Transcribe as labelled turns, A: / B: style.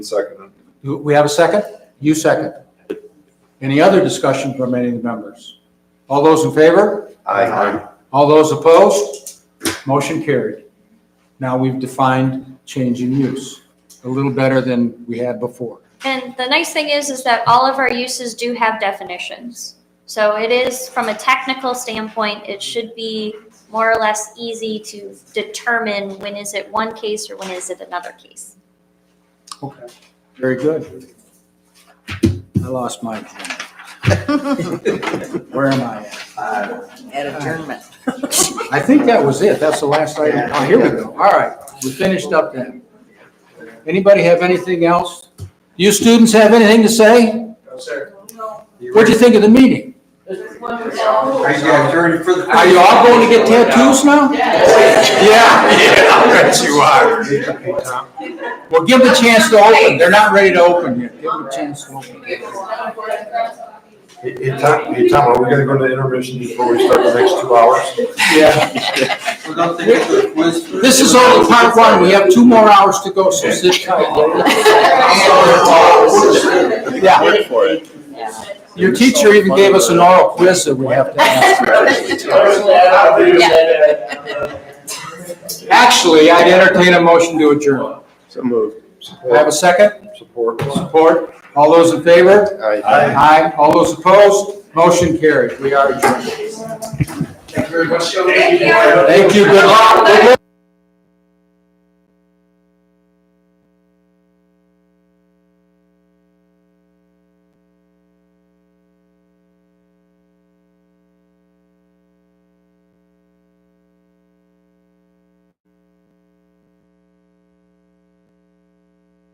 A: Second.
B: Do we have a second? You second. Any other discussion from any of the members? All those in favor?
A: Aye.
B: All those opposed? Motion carried. Now we've defined change in use a little better than we had before.
C: And the nice thing is, is that all of our uses do have definitions. So it is, from a technical standpoint, it should be more or less easy to determine when is it one case or when is it another case.
B: Okay, very good. I lost my. Where am I at?
D: uh, at adjournment.
B: I think that was it. That's the last item. Oh, here we go. All right, we finished up then. Anybody have anything else? You students have anything to say?
A: No, sir.
B: What'd you think of the meeting?
A: Are you guys ready for the?
B: Are you all going to get tattoos now?
A: Yeah, bet you are.
B: Well, give them a chance to open. They're not ready to open yet. Give them a chance to open.
A: Hey, hey, Tom, hey, Tom, are we gonna go to intermission before we start the next two hours?
B: Yeah.
E: We're gonna take it to a quiz. first.
B: This is only part one. We have two more hours to go, so sit tight. Yeah.
F: Wait for it.
B: Your teacher even gave us an oral quiz that we have to answer. Actually, I'd entertain a motion to adjourn.
F: So moved.
B: Do I have a second?
A: Support.
B: Support? All those in favor?
A: Aye.
B: Aye. All those opposed? Motion carried. We are adjourned.
E: Thank you very much.
B: Thank you. Good luck.